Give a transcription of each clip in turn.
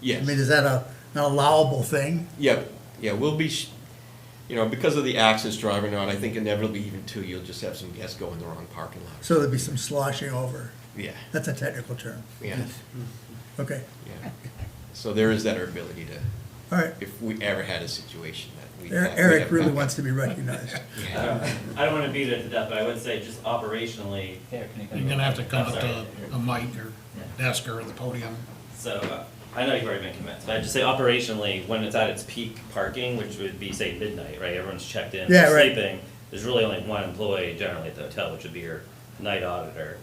Yes. I mean, is that a, an allowable thing? Yeah, yeah, we'll be, sh- you know, because of the axis driving on, I think inevitably even two, you'll just have some guests go in the wrong parking lot. So there'd be some sloshing over. Yeah, That's a technical term. yeah, Okay, yeah. So there is that ability to, all right. if we ever had a situation that we. Er- have- we Eric have- really wants to be recognized. Yeah. Uh, I don't wanna beat it to death, but I would say just operationally, Here, can you come You're gonna have to come I'm up to sorry. a mic or desk or the podium. so, uh, I know you've already made comments, but I'd just say operationally, when it's at its peak parking, which would be, say, midnight, right, everyone's checked in, Yeah, right. sleeping, there's really only one employee generally at the hotel, which would be your night auditor,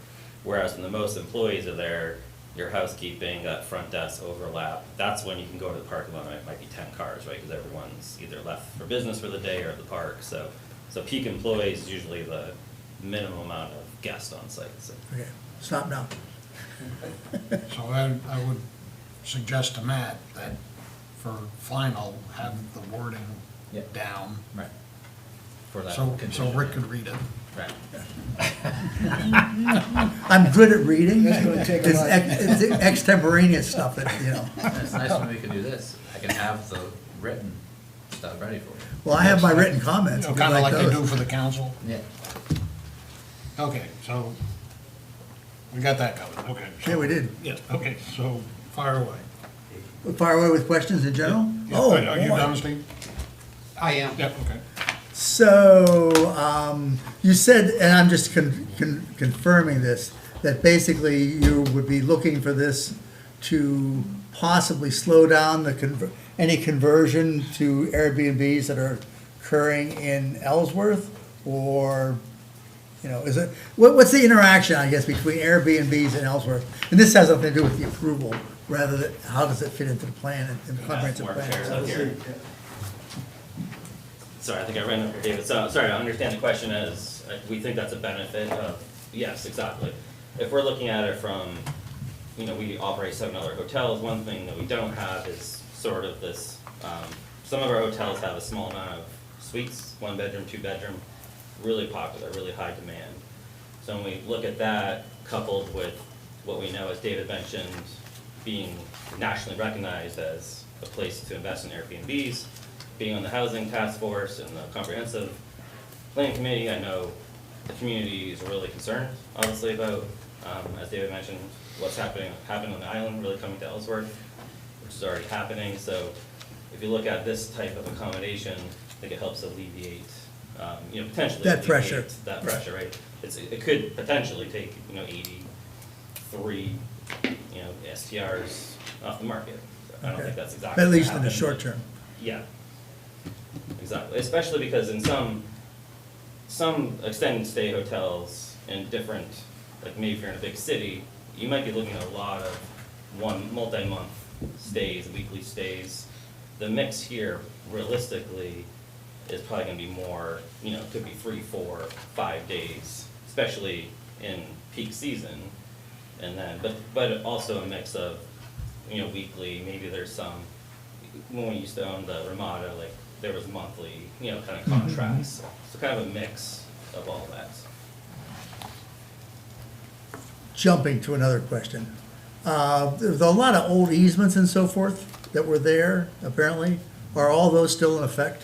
whereas when the most employees are there, your housekeeping, that front desk overlap, that's when you can go to the parking lot, and it might be ten cars, right, because everyone's either left for business for the day or at the park, so, so peak employees is usually the minimum amount of guests on site, so. Okay, stop now. So I, I would suggest to Matt that for final, have the wording Yeah. down. Right. For that So, so condition. Rick could read it. Right. I'm good at reading. That's gonna take a It's lot. ex- It's extemporaneous stuff that, you know. And It's nice when we can do this. I can have the written stuff ready for you. Well, I have my written You comments. know, if you'd kinda like they those. do for the council. Yeah. Okay, so we got that covered, okay. so- Yeah, we did. Yes, okay, so fire away. Fire away with questions in general? Yeah, Oh, Are you boy. done, Steve? I am. Yep, okay. So, um, you said, and I'm just con- con- confirming this, that basically you would be looking for this to possibly slow down the conver- any conversion to Airbnbs that are occurring in Ellsworth? Or, you know, is it, what, what's the interaction, I guess, between Airbnbs and Ellsworth? And this has nothing to do with the approval, rather than, how does it fit into the plan and- and That's comprehensive more plan? fair up here. Sorry, I think I ran over David. So, sorry, I understand the question as, uh, we think that's a benefit of, yes, exactly. If we're looking at it from, you know, we operate seven other hotels, one thing that we don't have is sort of this, um, some of our hotels have a small amount of suites, one bedroom, two bedroom, really popular, really high demand. So when we look at that coupled with what we know, as David mentioned, being nationally recognized as a place to invest in Airbnbs, being on the housing task force and the comprehensive planning committee, I know the community is really concerned, obviously, about, um, as David mentioned, what's happening, happened on the island, really coming to Ellsworth, which is already happening, so if you look at this type of accommodation, I think it helps alleviate, um, you know, potentially That pressure. alleviate That pressure, right? It's, it could potentially take, you know, eighty-three, you know, STRs off the market. I don't Okay. think that's exactly. At least in the happened, short but- term. yeah. Exactly, especially because in some, some extended stay hotels in different, like maybe if you're in a big city, you might be looking at a lot of one, multi-month stays, weekly stays. The mix here realistically is probably gonna be more, you know, could be three, four, five days, especially in peak season. And then, but, but also a mix of, you know, weekly, maybe there's some, when we used to own the Ramada, like, there was monthly, you know, kind of contracts. So kind of a mix of all that. jumping to another question. Uh, There's a lot of old easements and so forth that were there, apparently. Are all those still in effect?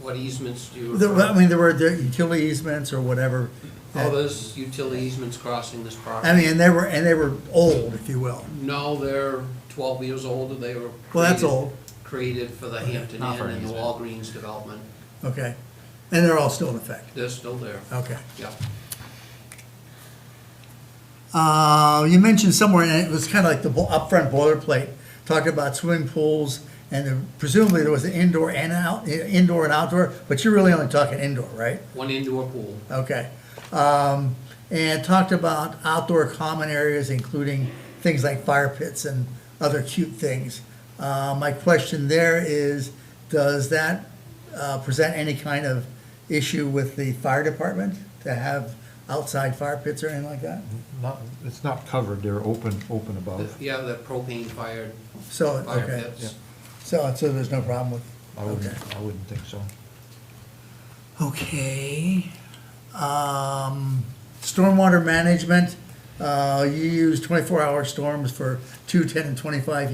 What easements do you? There- refer- I mean, there were there utility easements or whatever. All those utility easements crossing this I property? mean, and they were, and they were old, if you will. No, they're twelve years old, and they were. Well, that's created- old. Created for the Hampton Not for Inn an and the easement. Walgreens development. Okay. And they're all still in effect. They're still there. Okay. Yeah. Uh, You mentioned somewhere, and it was kind of like the bo- upfront boilerplate, talked about swimming pools, and there- presumably there was an indoor and out, indoor and outdoor, but you're really only talking indoor, right? One indoor pool. Okay. Um, And talked about outdoor common areas, including things like fire pits and other cute things. Uh, My question there is, does that uh, present any kind of issue with the fire department to have outside fire pits or anything like that? Not, it's not covered, they're open, open above. Yeah, the propane fired So, fire okay, pits. so, so there's no problem with, I okay. wouldn't, I wouldn't think so. Okay. Um, stormwater management, uh, you use twenty-four hour storms for two, ten, and twenty-five